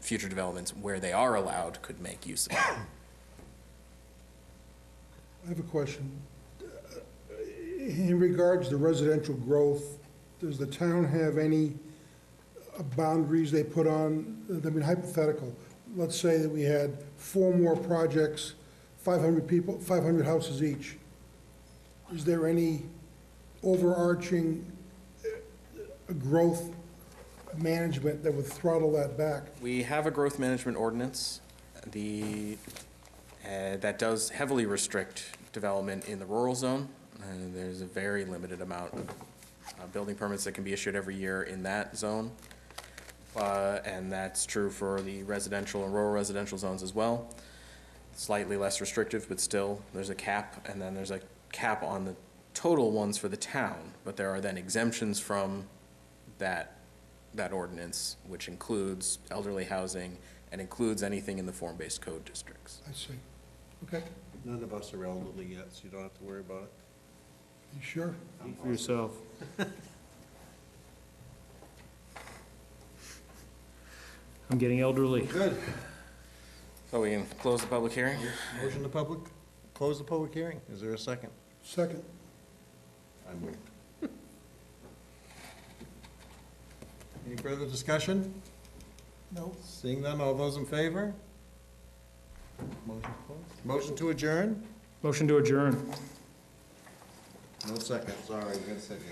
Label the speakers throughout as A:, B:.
A: future developments where they are allowed could make use of it.
B: I have a question. In regards to residential growth, does the town have any boundaries they put on, I mean hypothetical, let's say that we had four more projects, 500 people, 500 houses each. Is there any overarching uh, growth management that would throttle that back?
A: We have a growth management ordinance, the, uh, that does heavily restrict development in the rural zone. And there's a very limited amount of uh, building permits that can be issued every year in that zone. Uh, And that's true for the residential and rural residential zones as well. Slightly less restrictive, but still, there's a cap. And then there's a cap on the total ones for the town. But there are then exemptions from that that ordinance, which includes elderly housing and includes anything in the form-based code districts.
B: I see. Okay,
C: None of us are elderly yet, so you don't have to worry about it.
B: you sure?
D: Speak for yourself. I'm getting elderly.
C: Good.
A: So we can close the public hearing?
C: Motion to public, close the public hearing. Is there a second?
B: Second,
C: I moved. Any further discussion?
B: no,
C: Seeing none, all those in favor? Motion closed. Motion to adjourn?
D: Motion to adjourn.
C: No second, sorry, we got a second.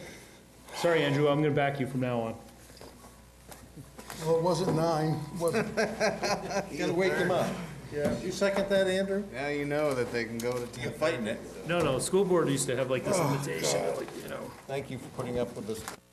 D: Sorry, Andrew, I'm gonna back you from now on.
B: well, it wasn't nine, was it?
C: You gotta wake them up. Yeah. You second that, Andrew?
E: Now you know that they can go to. You're fighting it.
D: No, no, school board used to have like this invitation, like, you know.
C: Thank you for putting up with us.